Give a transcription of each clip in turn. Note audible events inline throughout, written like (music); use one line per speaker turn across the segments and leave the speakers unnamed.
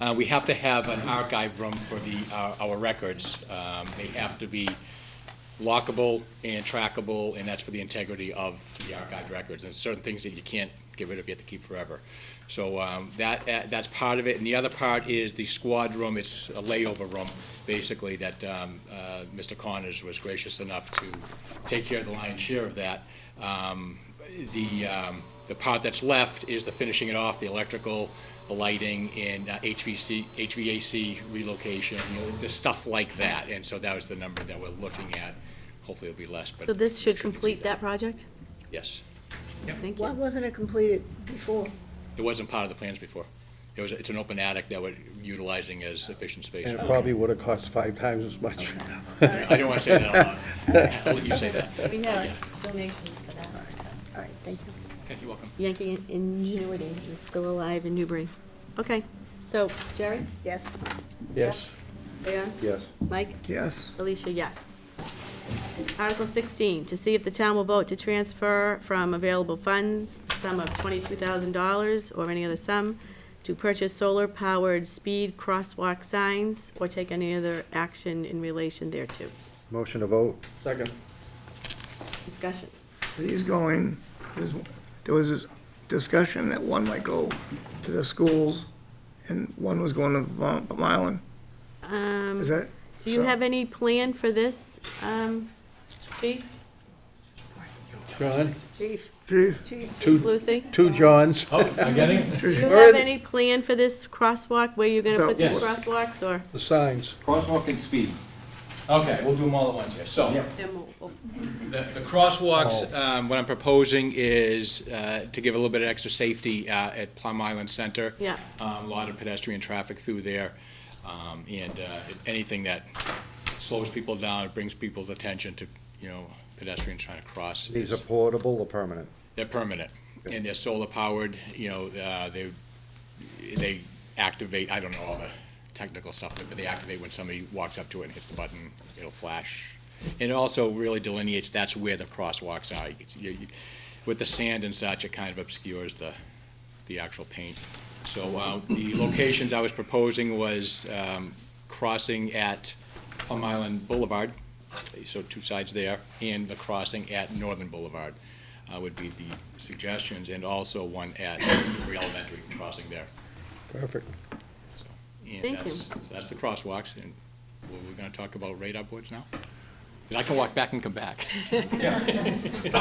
Uh, we have to have an archive room for the, our, our records. Um, they have to be lockable and trackable, and that's for the integrity of the archived records. And certain things that you can't get rid of, you have to keep forever. So um, that, uh, that's part of it. And the other part is the squad room. It's a layover room, basically, that um, uh, Mr. Connors was gracious enough to take care of the lion's share of that. Um, The, um, the part that's left is the finishing it off, the electrical, the lighting, and uh, HVC, HVAC relocation, you know, just stuff like that. And so that was the number that we're looking at. Hopefully it'll be less, but.
So this should
it be
complete that
done.
project?
Yes.
Thank
Why
you.
wasn't it completed before?
It wasn't part of the plans before. It was, it's an open attic that we're utilizing as efficient space.
And it probably would have cost five times as much.
I don't want to say that out loud. I'll let you say that.
We have
donations for that.
All right, thank you.
Okay, you're welcome.
Yankee Ingenuity is still alive in Newbury. Okay, so Jerry,
Yes.
Yes.
Leon,
Yes.
Mike,
Yes.
Alicia, yes. Article 16, to see if the town will vote to transfer from available funds the sum of $22,000 or any other sum to purchase solar-powered speed crosswalk signs or take any other action in relation thereto.
Motion to vote. Second.
Discussion.
These going, there's- there was this discussion that one might go to the schools and one was going to Vermont- Plum Island. Is that?
Um, Do you have any plan for this, um, Chief?
John,
Chief.
Chief,
two,
Lucy?
two Johns.
Do you
Or
have
the-
any plan for this crosswalk, where you're gonna
No.
put these
Yes.
crosswalks, or?
The signs.
Crosswalk and speed.
Okay, we'll do them all at once here. So, The the crosswalks,
Oh.
um, what I'm proposing is uh, to give a little bit of extra safety uh, at Plum Island Center.
Yeah.
Um, A lot of pedestrian traffic through there, um, and uh, anything that slows people down, brings people's attention to, you know, pedestrians trying to cross.
These
is-
are portable or permanent?
They're permanent, and they're solar powered, you know, uh, they, they activate, I don't know all the technical stuff, but they activate when somebody walks up to it and hits the button, it'll flash. And it also really delineates, that's where the crosswalks are. You can see- you- you- With the sand and such, it kind of obscures the, the actual paint. So uh, the locations I was proposing was um, crossing at Plum Island Boulevard, so two sides there, and the crossing at Northern Boulevard uh, would be the suggestions, and also one at Newbury Elementary crossing there.
Perfect.
So, and
Thank you.
that's- so That's the crosswalks, and we're- we're going to talk about radar boards now? 'Cause I can walk back and come
(laughs)
back.
(laughs)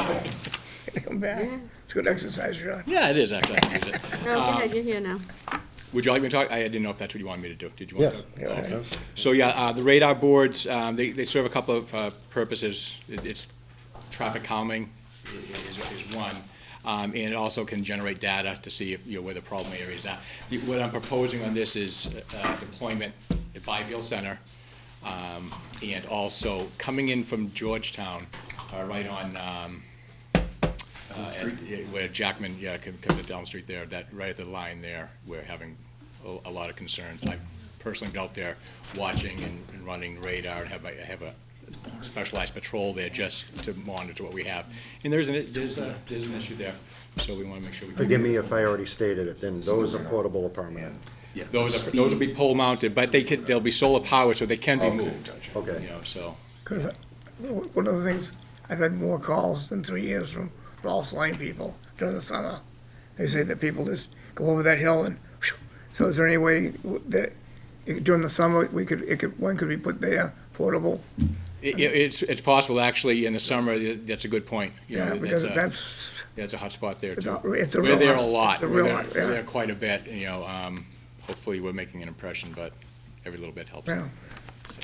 come back. It's good exercise, John.
Yeah, it is, actually, I can use it.
No, go ahead, you're here now.
Would you like me to talk? I didn't know if that's what you wanted me to do. Did you want to?
Yes.
talk? Okay. So, yeah, uh, the radar boards, um, they, they serve a couple of, uh, purposes. It- It's traffic calming i- i- is, is one. Um, and it also can generate data to see if, you know, where the problem areas are. The- What I'm proposing on this is, uh, deployment at Byfield Center, um, and also coming in from Georgetown, uh, right on, um, uh, at- yeah, Where Jackman, yeah, com- comes to Elm Street there, that, right at the line there, we're having a, a lot of concerns. I've personally been out there watching and and running radar, and have, a- I have a specialized patrol there just to monitor what we have. And there's an, there's a, there's an issue there, so we wanna make sure we.
Forgive me if I already stated it, then those are portable or permanent.
Those are, those will be pole mounted, but they could, they'll be solar powered, so they can be
Okay,
moved.
okay.
You know, so,
Because one of the things, I've had more calls than three years from Rolfs Lane people during the summer. They say that people just go over that hill and, phew. so is there any way that during the summer, we could, it could, one could be put there, portable?
it, it- it's, it's possible, actually, in the summer, that's a good point. You know,
Yeah, because
a-
that's.
Yeah, it's a hot spot there,
It's
too.
a- it's a
We're
real
there a
hot-
lot.
it's a
We're
real
there-
hot-
we're
yeah.
there quite a bit, you know, um, hopefully we're making an impression, but every little bit helps.
Yeah.
So,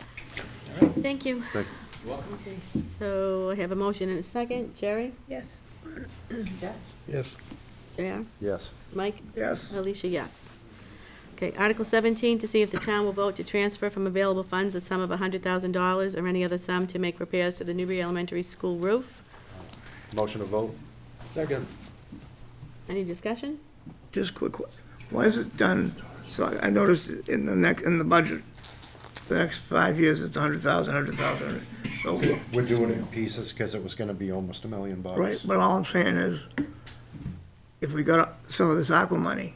Thank you.
Thank
Okay, So I have a motion and a second. Jerry?
Yes.
Yes.
Yeah.
Yes.
Mike?
Yes.
Alicia, yes. Okay, Article 17, to see if the town will vote to transfer from available funds the sum of $100,000 or any other sum to make repairs to the Newbury Elementary School roof.
Motion to vote?
Second.
Any discussion?
Just quick, why is it done, so I- I noticed in the next, in the budget, the next five years, it's a hundred thousand, hundred thousand. So,
We're doing it in pieces because it was gonna be almost a million bucks.
right, but all I'm saying is, if we got some of this aqua money,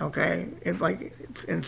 okay, it's like, it's in